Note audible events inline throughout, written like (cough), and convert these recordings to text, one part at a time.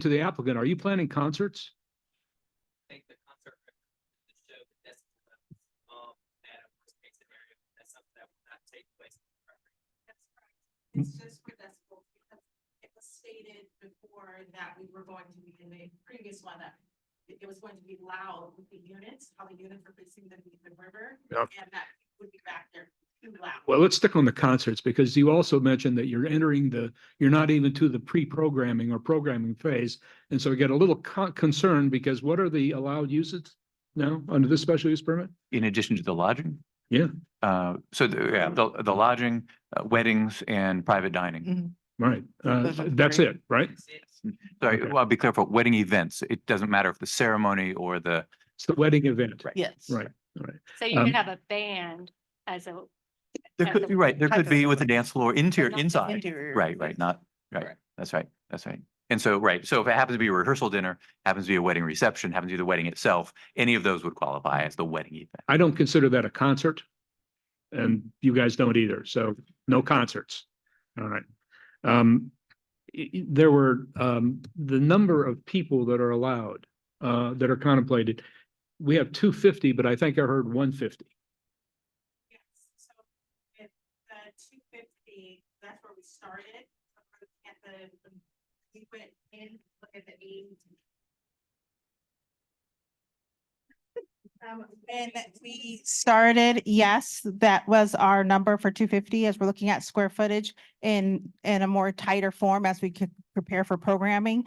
to the applicant, are you planning concerts? think the concert record the show that that's um at a worst case scenario, that's something that will not take place. in the property. That's correct. It's just for this, vote, because it was stated before that we were going to be in the previous one that it it was going to be loud with the units, how the units were facing the, the river. Yeah. And that would be back there too loud. Well, let's stick on the concerts because you also mentioned that you're entering the, you're not even to the pre-programming or programming phase. And so we get a little con- concerned because what are the allowed uses now under this special use permit? in addition to the lodging? Yeah. Uh, so the, yeah, the, the lodging, uh, weddings and private dining. Right, uh, Those are that's great. it, right? It's- Sorry, Okay. well, I'll be careful, wedding events. It doesn't matter if the ceremony or the, It's the wedding event. Right. Yes. Right. So you Um, could have a band as a, there At could, the- be right, there Type could of be with a dance floor interior, not the inside. Interior. Right, right, not, right. Correct. That's right, that's right. And so, right, so if it happens to be a rehearsal dinner, happens to be a wedding reception, happens to be the wedding itself, any of those would qualify as the wedding event. I don't consider that a concert. And you guys don't either, so no concerts. All right. Um, i- i- there were, um, the number of people that are allowed, uh, that are contemplated. We have two fifty, but I think I heard one fifty. Yes, so if the two fifty, that's where we started. At the, we went in, look at the eight. Um, and we started, yes, that was our number for two fifty as we're looking at square footage in, in a more tighter form as we could prepare for programming.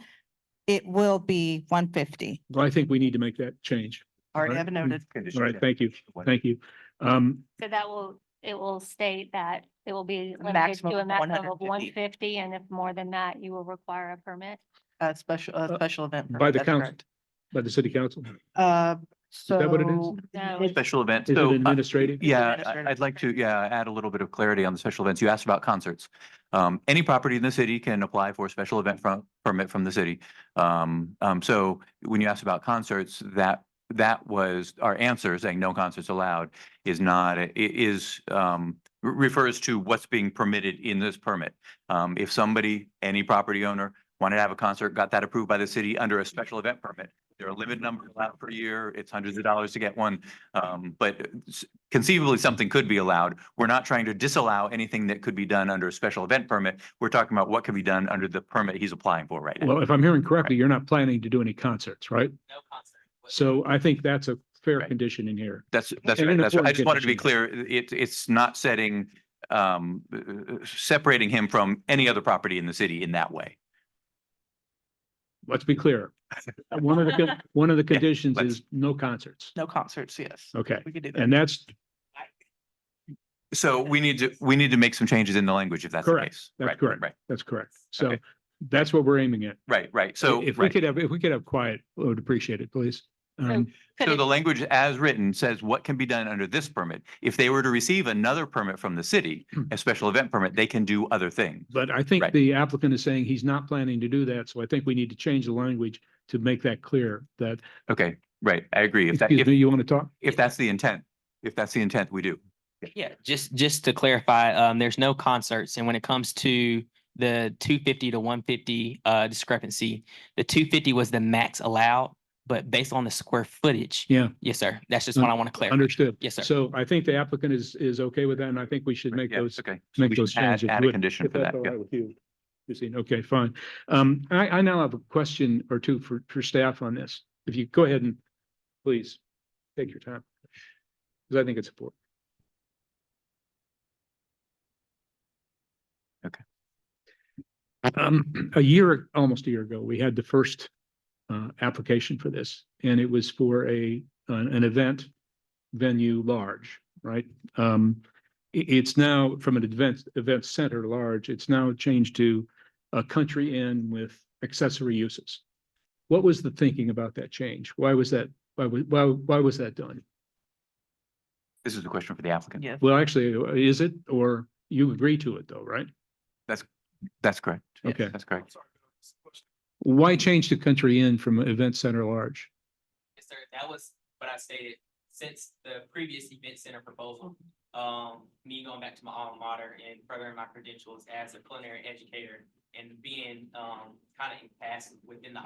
It will be one fifty. Well, I think we need to make that change. Already Right. Mm, have noted. All right, thank you. Thank you. Um, so that will, it will state that it will be limited Maximum to a of maximum of 150. one fifty, and if more than that, you will require a permit. A special, a special event. Uh, by permit, the that's council. correct. by the city council, is Uh, so. that what it is? No, It- Special event. it So, uh, administrative? Yeah, administrative I- I'd like to, expenses. yeah, add a little bit of clarity on the special events. You asked about concerts. Um, any property in the city can apply for a special event from, permit from the city. Um, um, so when you asked about concerts, that, that was our answer saying no concerts allowed is not, i- is, um, re- refers to what's being permitted in this permit. Um, if somebody, any property owner wanted to have a concert, got that approved by the city under a special event permit, there are a limited number allowed per year. It's hundreds of dollars to get one. Um, but s- conceivably, something could be allowed. We're not trying to disallow anything that could be done under a special event permit. We're talking about what can be done under the permit he's applying for right now. Well, if I'm hearing correctly, you're not planning to do any concerts, right? No concert. was- So I think that's a fair Right. condition in here. That's, that's, and right, in that's, right. I accordance just with wanted to be the- clear, it, it's not setting, um, uh, separating him from any other property in the city in that way. let's be clear. One of the, (laughs) con- one of the conditions let's- is no concerts. No concerts, yes. Okay, We could do that. and that's, So we need to, we need to make some changes in the language if that's the Correct. case. That's Right, correct. Right, that's correct. So Okay. that's what we're aiming at. right, right. So. If right. Oh, we could have, if we could have quiet, I would appreciate it, please. Um, could So it- the language as written says what can be done under this permit. If they were to receive another permit from the city, Hmm. a special event permit, they can do other things. But I think Right. the applicant is saying he's not planning to do that, so I think we need to change the language to make that clear that, Okay, right, I agree. If that, excuse me, if, you want to talk? if that's the intent, if that's the intent, we do. Yeah, just, just to clarify, um, there's no concerts, and when it comes to the two fifty to one fifty, uh, discrepancy, the two fifty was the max allowed, but based on the square footage. Yeah. Yes, sir. That's just what I want to clarify. Understood. Yes, sir. So I think the applicant is, is okay with that, and I think we should make Yeah, those Okay. So make we should those add- changes. Add a Would- condition If for that's that. all yeah. right with you, Christine, okay, fine. Um, I, I now have a question or two for, for staff on this. If you go ahead and please take your time. Because I think it's important. Okay. Um, a year, almost a year ago, we had the first uh, application for this, and it was for a, an, an event venue large, right? Um, i- it's now from an event, event center large, it's now changed to a country inn with accessory uses. What was the thinking about that change? Why was that, why, wa- why, why was that done? This is the question for the applicant. Yes. Well, actually, is it, or you agree to it though, right? That's correct. Yes, Okay. That's correct. Why change the country inn from event center large? Yes, sir. That was what I stated since the previous event center proposal. Um, me going back to my alma mater and furthering my credentials as a culinary educator and being, um, kind of impassive within the